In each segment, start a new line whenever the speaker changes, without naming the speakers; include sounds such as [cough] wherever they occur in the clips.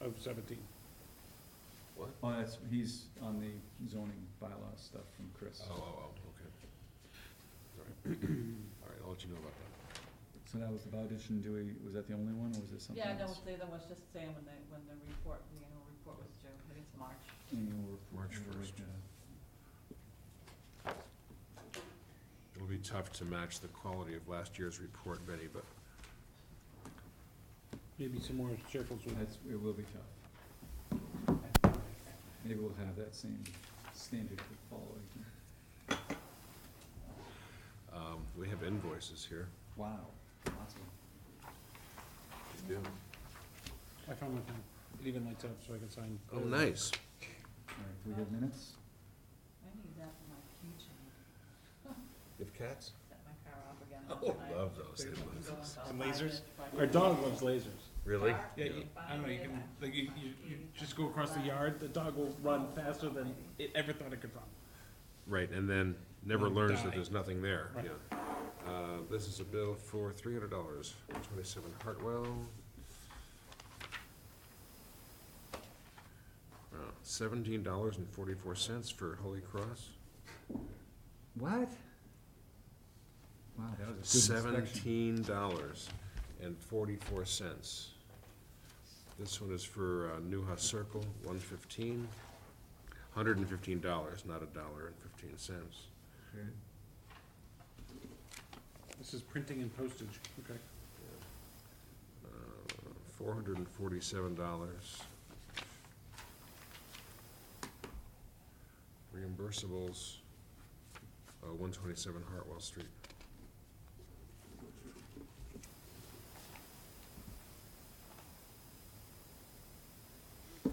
of seventeen.
What?
Oh, that's, he's on the zoning bylaw stuff from Chris.
Oh, oh, oh, okay. All right, all right, I'll let you know about that.
So that was the Bowditch and Dewey, was that the only one, or was there something
Yeah, no,
else?
the other one's just saying when the, when the report, the annual report was due, I think it's March.
Annual report,
March
annual
1st.
report.
It'll be tough to match the quality of last year's report, Betty, but
Maybe some more circles with
uh, That's, it will be tough. Maybe we'll have that same standard to follow again.
um, we have invoices here.
Wow, awesome.
Yeah.
I found my pen. It even lights up so I can sign.
Oh, nice.
All right, do we have minutes?
I need that for my keychain,
You have cats?
set my car up again.
Oh, love those.
Big
Go
invoices.
until
And
five
lasers?
minutes before I
Our
go.
dog loves lasers.
Really?
Car?
Yeah, you- I don't know, you can, like, you, you, you just go across the yard, the dog will run faster than it ever thought it could run.
Right, and then never
Then
learns
die.
that there's nothing there,
Right.
yeah. Uh, this is a bill for three hundred dollars, twenty-seven Hartwell. Uh, Seventeen dollars and forty-four cents for Holy Cross,
What? Wow, that was a good inspection.
seventeen dollars and forty-four cents. This one is for, uh, Newhouse Circle, one fifteen, hundred and fifteen dollars, not a dollar and fifteen cents.
Good.
This is printing and postage, okay.
Uh, Four hundred and forty-seven dollars. Reimbursables, uh, one twenty-seven Hartwell Street.
I'll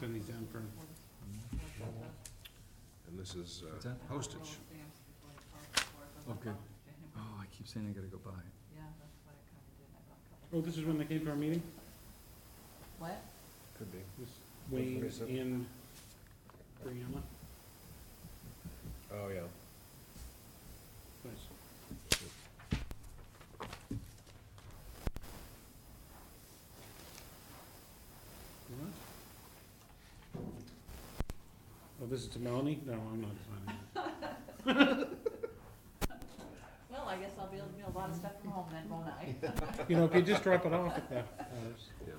send these down for,
Uh,
And this is,
What's
uh,
that?
postage.
Okay. Oh, I keep saying I gotta go buy it.
Yeah, that's what I kinda did, I bought a couple.
oh, this is when they came to our meeting?
What?
Could be.
This Wayne
Raise up.
and Brianna,
Oh, yeah.
nice. What? Oh, this is to Melanie? No, I'm not signing it.
Well, I guess I'll be able to do a lot of stuff from home then,
[laughs]
won't I?
You know, if you just drop it off at uh, the house.
Yeah,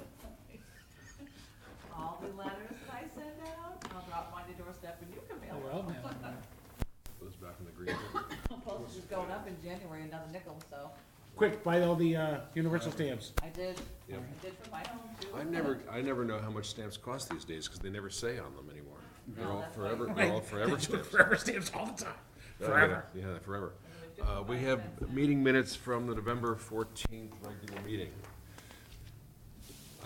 All the letters that I send out, I'll drop mine to doorstep and you can mail them.
oh, Well, now,
those back in the
[coughs]
green. bin.
Oh,
Postage is going up in January, another nickel, so
Quick, buy all the, uh, universal stamps.
I did, I
Yeah.
did for my home too.
I never, I never know how much stamps cost these days, cause they never say on them anymore. They're
No,
all
that's why-
forever, they're all forever
They do
stamps.
Forever stamps all the time,
Oh,
[laughs]
yeah,
forever.
Yeah, forever.
It was
Uh, we
55 [laughs]
have
cents.
meeting minutes from the November fourteenth regular meeting.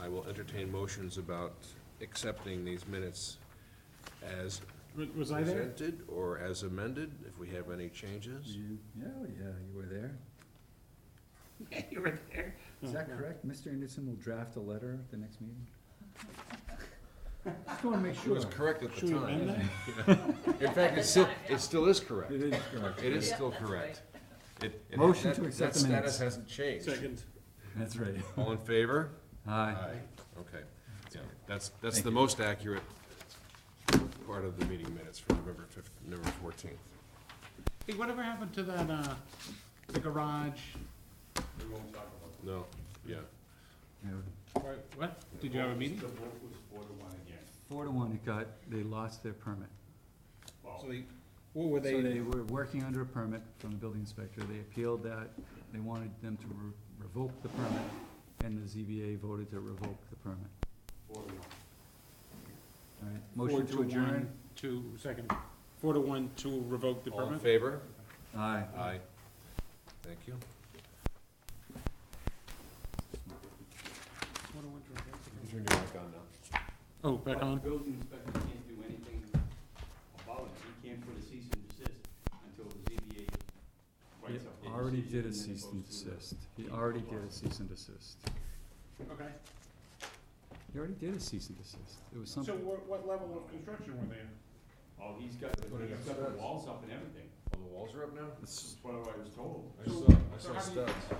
I will entertain motions about accepting these minutes as
W- Was I there?
presented or as amended, if we have any changes.
You, yeah, oh, yeah, you were there.
You were there.
Is that correct? Mr. Anderson will draft a letter at the next meeting? Just wanna make
It
sure.
was correct at
Should we
the
amend
time.
that?
[laughs] In fact, it's still, it still is correct.
It
It
is correct.
is
Yeah,
still
that's
correct. It- it-
Motion
that-
to accept the
That
minutes.
status hasn't changed.
Second.
That's right.
All in favor?
Hi.
Okay, yeah, that's, that's
Thank
the
you.
most accurate part of the meeting minutes for November fif, November fourteenth.
Hey, whatever happened to that, uh, the garage?
No, yeah,
Or What? Did you have a meeting?
Four to one, it got, they lost their permit.
So they, what were
So
they,
they were working under a permit from the building inspector, they appealed that, they wanted them to re- revoke the permit, and the ZBA voted to revoke the permit. All right,
four
motion
to
to adjourn?
one, to, second, four to one to revoke the
all in
permit?
favor?
Aye.
Aye. Thank you.
Four to one to revoke the permit.
Turn your mic on now.
Oh, back on?
But the building inspector can't do anything about it, he can't put a cease and desist until the ZBA
He
writes up. a
already
decision
did a
and then it
cease and
goes to the-
desist, he already did a cease and desist.
Okay,
He already did a cease and desist, it was
so
something,
what, what level of construction were they in?
Oh, he's got,
What
he's
is
got the
that?
walls up and everything,
Oh, the walls are up now?
it's
that's what I was told.
I saw, I
so
saw
how do you-
studs.